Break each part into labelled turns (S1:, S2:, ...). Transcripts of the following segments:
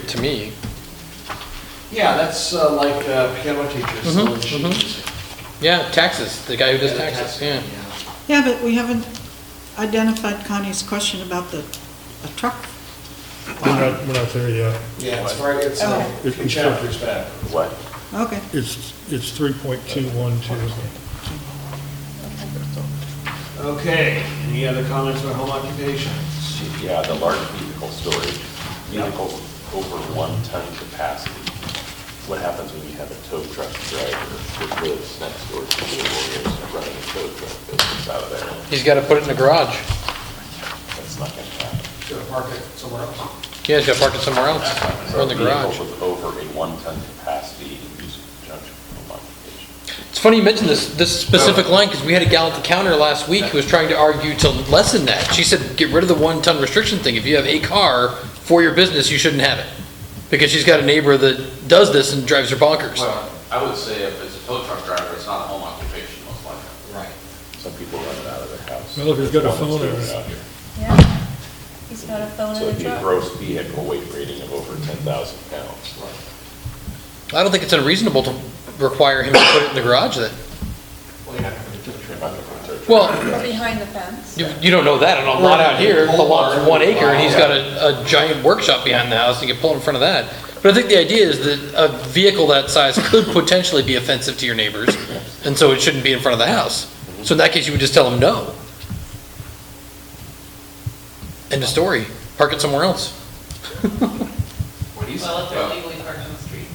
S1: To me,
S2: Yeah, that's uh, like uh, piano teachers selling sheet
S1: mhm.
S2: music.
S1: yeah, taxes, the guy who does
S2: Yeah,
S1: taxes, yeah.
S3: Yeah, but we haven't identified Connie's question about the a truck.
S4: We're not, we're not there yet.
S2: Yeah, it's right, it's
S3: Okay.
S2: uh,
S4: It's-
S2: in chapters back.
S3: Okay,
S4: It's, it's three point two one two.
S2: Okay, any other comments on home occupations?
S5: Yeah, the large vehicle storage, vehicles over one ton capacity. What happens when you have a tow truck driver that lives next door to the lawyers running a tow truck business out of there?
S1: He's gotta put it in the garage.
S5: That's not gonna happen.
S2: Should I park it somewhere else?
S1: Yeah, he's gotta park it somewhere else, or in the garage.
S5: Vehicle with over a one ton capacity in use in conjunction with home occupation.
S1: It's funny you mentioned this, this specific line, because we had a gal at the counter last week who was trying to argue to lessen that. She said, get rid of the one-ton restriction thing. If you have a car for your business, you shouldn't have it. Because she's got a neighbor that does this and drives her bonkers.
S6: Well, I would say if it's a tow truck driver, it's not a home occupation, most likely.
S2: Right.
S5: Some people run it out of their house.
S4: Well, if he's got a phone
S5: There's one
S4: in
S5: that's
S4: it.
S5: doing out here.
S7: Yeah, he's got a phone
S5: So
S7: in
S5: it'd
S7: the
S5: be a
S7: truck.
S5: gross vehicle weight rating of over ten thousand pounds.
S1: I don't think it's unreasonable to require him to put it in the garage then.
S2: Well, you're not gonna put a
S5: You're
S2: trailer.
S5: not gonna put a tow truck
S1: Well,
S7: Or behind the fence.
S1: you, you don't know that on a lot out here. The lot's one acre and he's got a
S2: Or-
S1: a giant workshop behind the house, you can pull in front of that. But I think the idea is that a vehicle that size could potentially be offensive to your neighbors, and so it shouldn't be in front of the house. So in that case, you would just tell them no. End of story, park it somewhere else.
S6: What do you say?
S8: Well, if they're
S6: Well,
S8: legally parked on the street.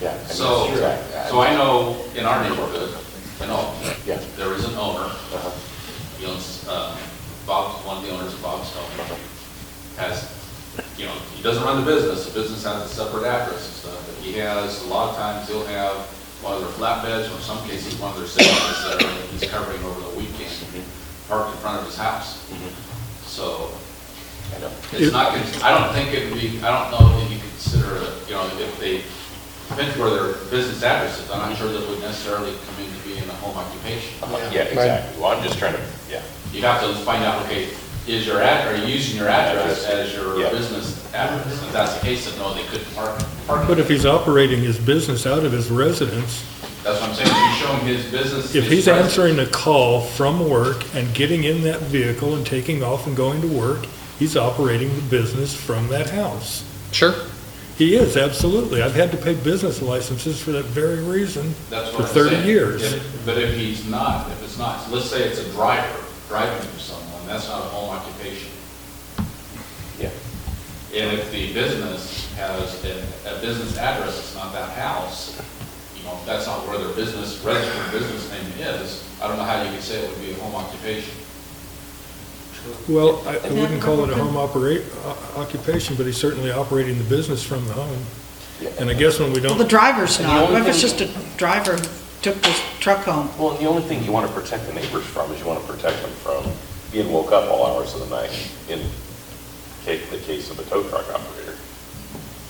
S5: Yeah. I mean,
S6: So,
S5: exactly.
S6: so I know in our neighborhood, I know,
S5: Yeah.
S6: there is an owner,
S5: Uh-huh.
S6: he owns, uh, Bob, one of the owners of Bob's
S5: Uh-huh.
S6: Stone, has, you know, he doesn't run the business, the business has a separate address and stuff, but he has, a lot of times he'll have one of their flatbeds, or in some cases, one of their semis that are- he's covering over the weekend,
S5: Mm-hmm.
S6: parked in front of his house. So,
S5: I know.
S6: It's not, gonna- I don't think it'd be, I don't know that you consider, it, you know, if they, depends where their business address is, I'm not sure that would necessarily come in to be in a home occupation.
S5: I'm like, Yeah, exactly. Well, I'm just trying to, yeah.
S6: You'd have to find out, okay, is your ad, are you using your address as your
S5: Yeah.
S6: business address? If that's the case, then no, they couldn't park, park.
S4: But if he's operating his business out of his residence,
S6: That's what I'm saying, if you show him his business.
S4: if
S6: his
S4: he's
S6: res-
S4: answering a call from work and getting in that vehicle and taking off and going to work, he's operating the business from that house.
S1: Sure,
S4: He is, absolutely. I've had to pay business licenses for that very reason.
S6: That's
S4: for
S6: what I'm
S4: 30
S6: saying.
S4: years.
S6: If- But if he's not, if it's not, let's say it's a driver driving for someone, that's not a home occupation.
S5: Yeah.
S6: And if the business has a, a business address, it's not that house, you know, if that's not where their business, registered business name is, I don't know how you could say it would be a home occupation.
S4: Well, I I wouldn't call it a home operate, o- occupation, but he's certainly operating the business from the home. And I guess when we
S3: well, the
S4: don't,
S3: driver's
S5: And the
S3: not,
S5: only
S3: What if it's
S5: thing-
S3: just a driver who took the truck home.
S5: Well, and the only thing you want to protect the neighbors from is you want to protect them from being woke up all hours of the night in ca- the case of a tow truck operator.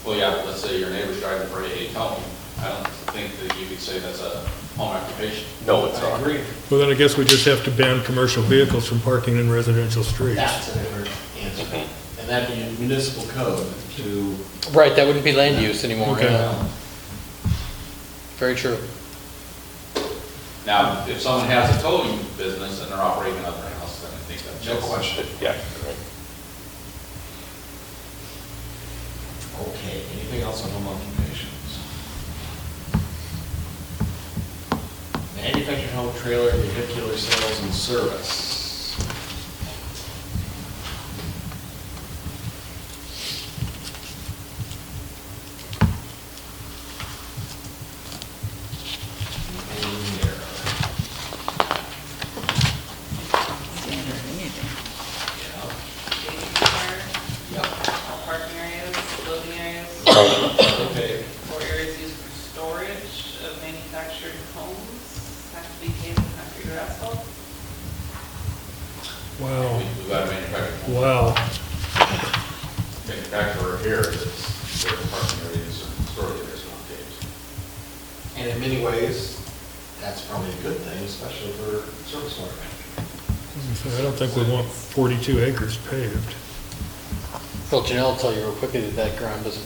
S6: Well, yeah, but let's say your neighbor's driving for a home, I don't think that you could say that's a home occupation.
S5: No, it's not.
S4: well, then I guess we just have to ban commercial vehicles from parking in residential streets.
S2: That's a different answer. And that'd be in municipal code to,
S1: right, that wouldn't be land use anymore,
S4: Okay.
S1: yeah.
S2: well,
S1: very true.
S6: Now, if someone has a towing business and they're operating another house, then I think that's.
S2: no question.
S5: Yeah. right.
S2: Okay, anything else on home occupations? Manufactured home trailer, vehicular sales and service. Anything there?
S3: Standard, anything.
S2: Yep.
S8: All parking areas, loading areas,
S2: Okay,
S8: or areas used for storage of manufactured homes have to be paved with concrete or asphalt.
S4: Wow,
S6: We- We've got a manufactured home.
S4: wow.
S6: manufacturer here that's, their parking areas and storage areas not paved.
S2: and in many ways, that's probably a good thing, especially for service owner.
S4: So I don't think we want 42 acres paved.
S1: Well, Janelle will tell you real quickly that that ground doesn't